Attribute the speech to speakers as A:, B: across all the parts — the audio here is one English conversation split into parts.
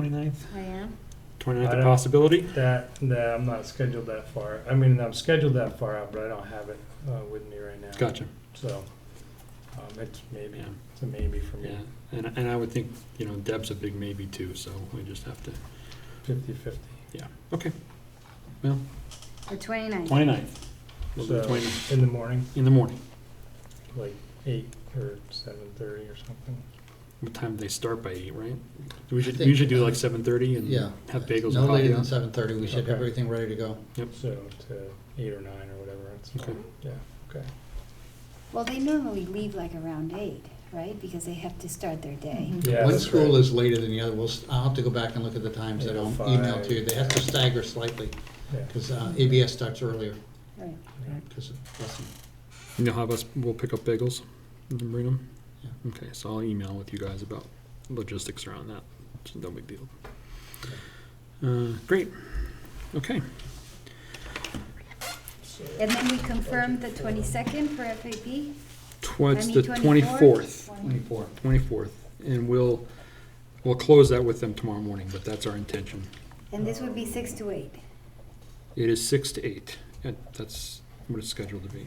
A: Twenty-ninth?
B: I am.
A: Twenty-ninth
C: I
A: a
C: don't-
A: possibility?
C: That, that, I'm not scheduled that far. I mean, I'm scheduled that far out, but I don't have it uh, with me right now.
A: Gotcha,
C: So, um, it's maybe,
A: yeah,
C: it's a maybe for me,
A: yeah. And, and I would think, you know, Deb's a big maybe too, so we just have to,
C: fifty-fifty.
A: okay,
B: The 29th.
A: twenty-ninth. We'll do
C: So-
A: 29th
C: In the morning,
A: in the morning.
C: like eight or seven-thirty or something.
A: What time do they start by eight, right? We should, we
D: think- uh,
A: should do like seven-thirty and
D: Yeah.
A: have bagels
D: No
A: and coffee.
D: later than
A: on?
D: seven thirty, we should
C: Okay.
D: have everything ready to go.
C: So to eight or nine or whatever. It's
A: Okay.
C: fine. Yeah, okay.
B: Well, they normally leave like around 8, right? Because they have to start their day.
A: Mm-hmm.
E: Mhm.
C: Yeah,
D: One
C: that's
D: school
C: right.
D: is later than the other, we'll, s- I'll have to go back and look at the times that I'll email to you, they have to stagger slightly, uh,
C: Yeah.
D: because ABS starts earlier,
B: Right.
C: Yeah.
D: 'cause of busing.
A: You know how us, we'll pick up bagels and then bring them?
D: Yeah.
A: Okay, so I'll email with you guys about logistics around that. It's no big deal. Uh, great, okay.
C: So,
B: And then we confirmed the 22nd for FAP?
A: Towards
B: I
A: the
B: mean,
A: 24th,
D: Twenty-four.
A: 24th, and we'll, we'll close that with them tomorrow morning, but that's our intention.
B: And this would be 6 to 8.
A: It is six to eight, and that's what it's scheduled to be.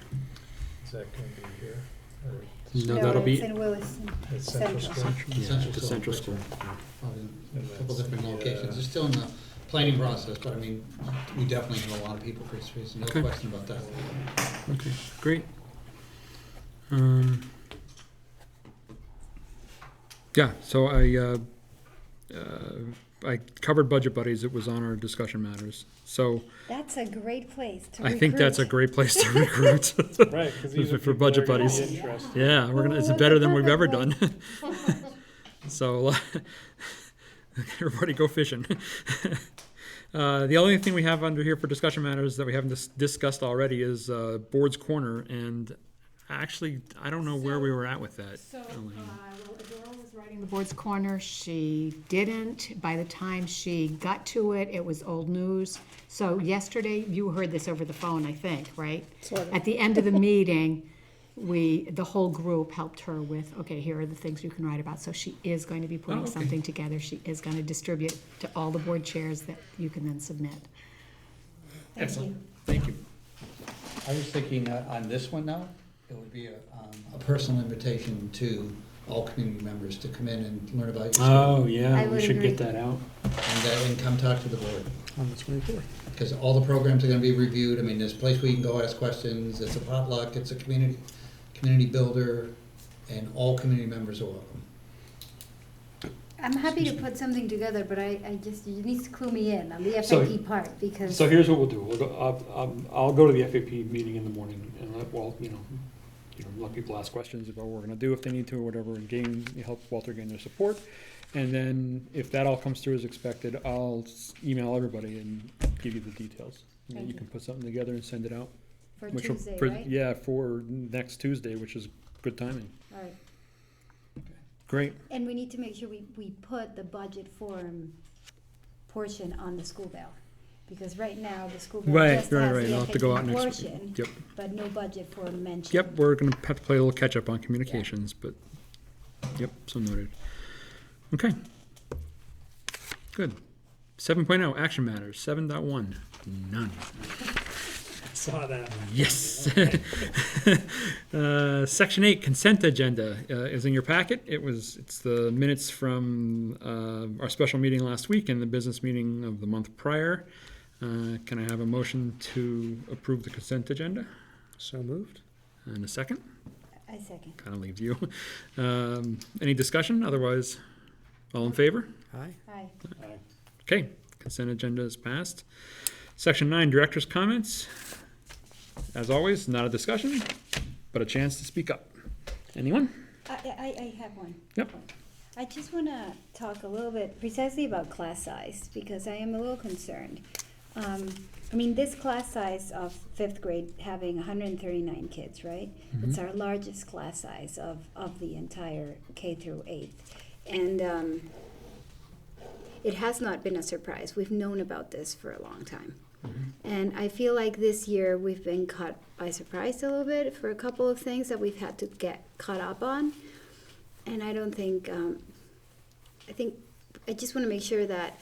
C: Is that gonna be here? or-
A: No, that'll be-
B: it's in Williston.
C: At Central
B: Central.
C: School?
A: Yeah, at the
D: Central
A: Mm. central
D: School.
A: school.
C: And
D: A couple
C: that's
D: different
C: the, uh,
D: locations, it's still in the planning process, but I mean, we definitely have a lot of people for space, no
A: Okay.
D: question about that.
A: Okay, great. Um, yeah, so I, uh, uh, I covered Budget Buddies, it was on our discussion matters. So
B: That's a great place to
A: I think that's a
B: recruit.
A: great place to recruit.
C: Right, because these
A: For
C: are people that
A: budget
C: are gonna be
A: buddies.
C: interested.
A: Yeah, we're gonna, it's better than we've ever done. So, uh, everybody go fishing. Uh, the only thing we have under here for discussion matters that we haven't dis- discussed already is, uh, Board's Corner, and actually, I don't know where we were at with that.
E: So, uh,
A: Elaine.
E: well, Adora was writing the board's corner, she didn't, by the time she got to it, it was old news. So yesterday, you heard this over the phone, I think, right? At the end of the meeting, we, the whole group helped her with, okay, here are the things you can write about. So she is going to be
A: Oh,
E: putting
A: okay.
E: something together, she is gonna distribute to all the board chairs that you can then submit.
A: Excellent, thank you.
D: I was thinking uh, on this one now, it would be a, um, a personal invitation to all community members to come in and learn about your school.
A: Oh, yeah,
B: I
A: we
B: would
A: should get
B: agree.
A: that out.
D: And uh, and come talk to the board,
A: On the twenty-fourth.
D: because all the programs are gonna be reviewed, I mean, there's a place where you can go ask questions, it's a potluck, it's a community, community builder, and all community members are welcome.
B: I'm happy to put something together, but I, I just, you need to clue me in on the
A: So-
B: FAP part because.
A: So here's what we'll do, we'll go, I'll, um, I'll go to the FAP meeting in the morning and let Walt, you know, you know, let people ask questions about what we're gonna do if they need to or whatever, and gain, help Walter gain their support. And then if that all comes through as expected, I'll s- email everybody and give you the details. And then you
B: Thank
A: can put something together and send it out.
B: For
A: which will-
B: Tuesday,
A: for-
B: right?
A: Yeah, for next Tuesday, which is good timing.
B: All right.
A: Great.
B: And we need to make sure we, we put the budget form portion on the school bill. Because right now, the school bill
A: Right,
B: just
A: right,
B: has
A: right.
B: the
A: I'll have to go out
B: FAQ
A: next week.
B: portion,
A: Yep.
B: but no budget form mentioned.
A: Yep, we're gonna have to play a little catch-up on communications, but, yep, so noted. Okay. Good. Seven oh, action matters, seven dot one, none.
C: Saw that.
A: Yes. Uh, Section eight, consent agenda, uh, is in your packet. It was, it's the minutes from, uh, our special meeting last week and the business meeting of the month prior. Uh, can I have a motion to approve the consent agenda?
C: So moved?
A: And a second?
B: I second.
A: kind of leaves you. Um, any discussion? Otherwise, all in favor?
C: Aye.
B: Aye.
A: Okay, consent agenda is passed. Section nine, director's comments. As always, not a discussion, but a chance to speak up. Anyone?
B: I, I, I have one.
A: Yep.
B: I just want to talk a little bit precisely about class size because I am a little concerned. Um, I mean, this class size of fifth grade having 139 kids, right? It's our largest class size of, of the entire K through eighth. And um, it has not been a surprise. We've known about this for a long time. And I feel like this year we've been caught by surprise a little bit for a couple of things that we've had to get caught up on. And I don't think, um, I think I just want to make sure that